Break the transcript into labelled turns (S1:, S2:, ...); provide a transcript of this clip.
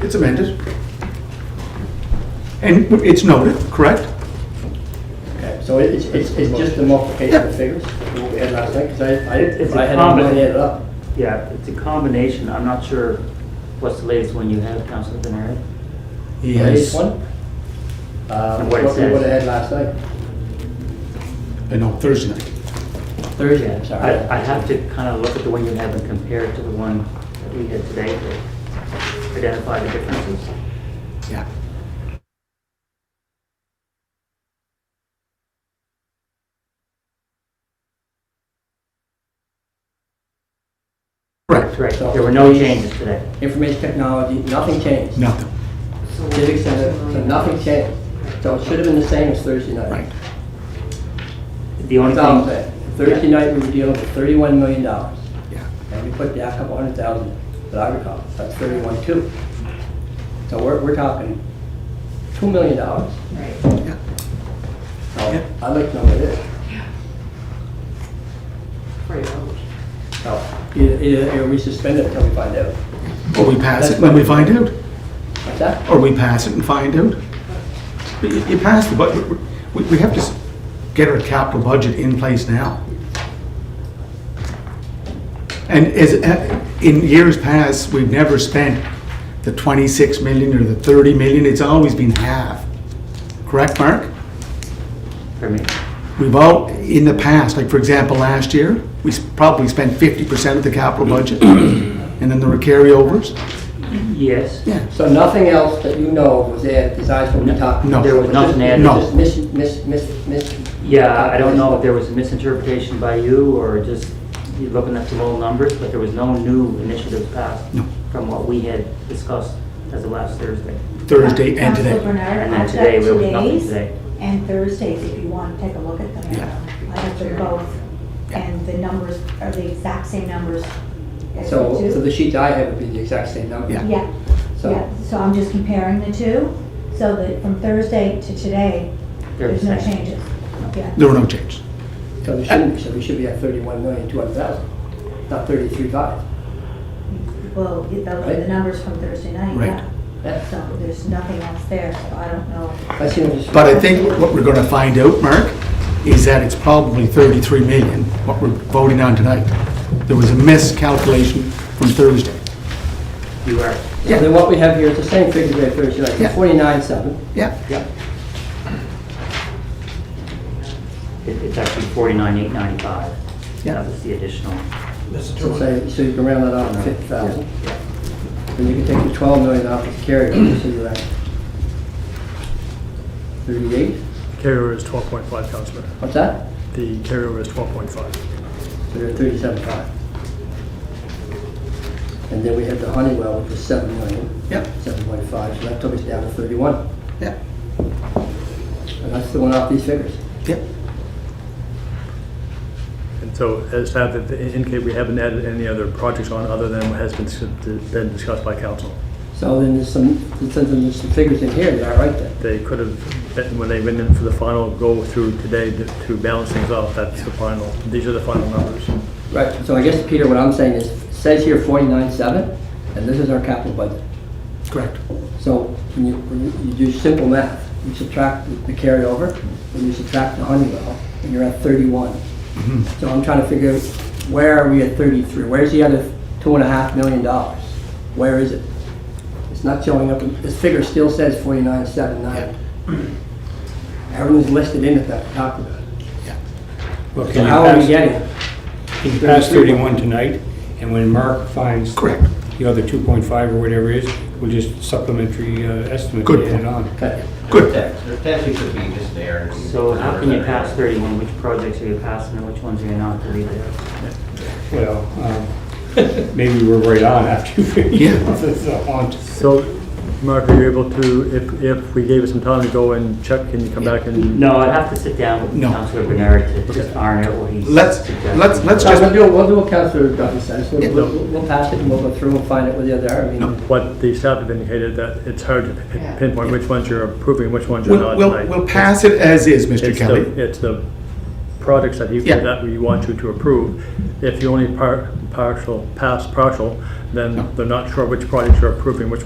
S1: It's amended. And it's noted, correct?
S2: Okay, so it's, it's, it's just the multiplication of figures, what we had last night, because I, I,
S3: It's- it's a
S2: I had not
S3: common-
S2: really added up.
S3: Yeah, it's a combination. I'm not sure what's the latest one you have, Councilor Denari?
S2: This one? Uh,
S3: And
S2: what
S3: what it
S2: we
S3: says.
S2: would have had last night.
S1: Uh, No, Thursday night.
S2: Thursday, I'm sorry.
S3: I, I have to kind of look at the one you have and compare it to the one that we had today to identify the differences.
S1: Yeah. Correct,
S3: Correct, there were no changes today.
S2: Information technology, nothing changed.
S1: nothing,
S2: Civic center, so nothing changed. So it should have been the same as Thursday night.
S1: right.
S3: The only
S2: That's all I'm
S3: thing,
S2: saying. Thursday night, we were dealing with thirty-one million dollars,
S1: Yeah.
S2: and we put down a couple hundred thousand, that I recall, that's thirty-one two. So we're, we're talking two million dollars.
S4: Right.
S1: Yeah.
S2: So
S1: Yeah.
S2: I'd like to know what it is.
S4: For your vote.
S2: So either, either either we suspend it until we find out.
S1: Or we pass it when we find out,
S2: What's that?
S1: or we pass it and find out. But You you pass the budget, we, we have to s- get our capital budget in place now. And as, uh, in years past, we've never spent the 26 million or the 30 million, it's always been half. Correct, Mark?
S3: for me,
S1: We've all, in the past, like for example, last year, we s- probably spent 50% of the capital budget, and then there were carryovers.
S3: yes.
S1: Yeah.
S2: So nothing else that you know was added besides what we talked?
S1: No.
S3: There was nothing added.
S1: No.
S2: Just mis, mis, mis, mis.
S3: Yeah, I don't know if there was a misinterpretation by you or just you looking at the low numbers, but there was no new initiatives passed
S1: No.
S3: from what we had discussed as of last Thursday.
S1: Thursday and
S4: Councilor
S1: today.
S4: Bernard,
S3: And then
S4: I've got
S3: today, there was nothing
S4: today's
S3: today.
S4: and Thursdays, if you want to take a look at them.
S1: Yeah.
S4: I have them both, and the numbers are the exact same numbers. as
S2: So,
S4: the two.
S2: so the sheets I have would be the exact same number.
S1: Yeah.
S4: Yeah,
S2: So-
S4: yeah, so I'm just comparing the two, so that from Thursday to today,
S3: They're the
S4: there's no
S3: same.
S4: changes. Yeah.
S1: There were no changes.
S2: So we shouldn't, so we should be at thirty-one million, two hundred thousand, not thirty-three five.
S4: Well, those are
S2: Right.
S4: the numbers from Thursday night,
S1: Right.
S2: Yeah.
S4: yeah. So there's nothing else there, so I don't know.
S2: I see what you're saying.
S1: But I think what we're gonna find out, Mark, is that it's probably 33 million, what we're voting on tonight. There was a miscalculation from Thursday.
S3: You are,
S2: So Then what we have here is the same figure we had Thursday
S1: Yeah.
S2: night, forty-nine seven.
S1: Yeah.
S3: it- it's actually forty-nine, eight ninety-five.
S1: Yeah.
S3: That was the additional.
S2: So say, so you can round that off to fifty thousand. And you can take the twelve million off as carryover, so you're at thirty-eight,
S5: Carryover is 12.5, Counselor.
S2: what's that?
S5: The carryover is 12.5.
S2: So you're at thirty-seven five. And then we had the Honeywell, which was seven million,
S1: Yep,
S2: seven point five, so that took us down to thirty-one.
S1: yep,
S2: And that's the one off these figures.
S1: yep.
S5: And so as staff have indicated, we haven't added any other projects on other than what has been s- been discussed by council.
S2: So then there's some, there's some there's some figures in here that are right there.
S5: They could have, been- when they went in for the final go through today to- to balance things out, that's the final, these are the final numbers.
S2: Right, so I guess, Peter, what I'm saying is, it says here forty-nine seven, and this is our capital budget.
S1: Correct.
S2: So when you, when you- you do simple math, you subtract the carryover, and you subtract the Honeywell, and you're at thirty-one.
S6: Mm-hmm.
S2: So I'm trying to figure out, where are we at thirty-three? Where's the other two and a half million dollars? Where is it? It's not showing up, in- this figure still says forty-nine seven nine. Everyone's listed in it that we talked about.
S6: Well,
S2: So
S6: can you
S2: how are we
S6: pass,
S2: getting it?
S6: can you pass 31 tonight, and when Mark finds
S1: Correct.
S6: the other 2.5 or whatever it is, we'll just supplementary uh, estimate
S1: Good
S6: and add
S1: point.
S6: it on.
S2: Okay.
S1: Good.
S7: There potentially could be just there.
S3: So how can you pass thirty-one? Which projects are you passing and which ones are you not to leave there?
S6: Well, um, maybe we're right on after you figure
S1: Yeah.
S6: this out.
S5: So, Mark, are you able to, if, if we gave it some time to go and check, can you come back and?
S3: No, I'd have to sit down with
S1: No.
S3: Councilor Bernard to just iron out what he's.
S1: Let's,
S3: suggesting.
S1: let's, let's
S2: So we'll
S1: just,
S2: do, we'll do what Counselor Duffy says,
S1: Yeah.
S2: we'll, we'll we'll pass it and we'll go through and find out where the other are, I mean,
S5: What the staff have indicated, that it's hard to pin- pinpoint which ones you're approving, which ones you're
S1: we'll,
S5: not
S1: we'll,
S5: tonight.
S1: we'll pass it as is, Mr.
S5: It's
S1: Kelly.
S5: the, it's the products that you,
S1: Yeah.
S5: that we want you to approve. If you only par, partial, pass partial, then they're not sure which products you're approving, which ones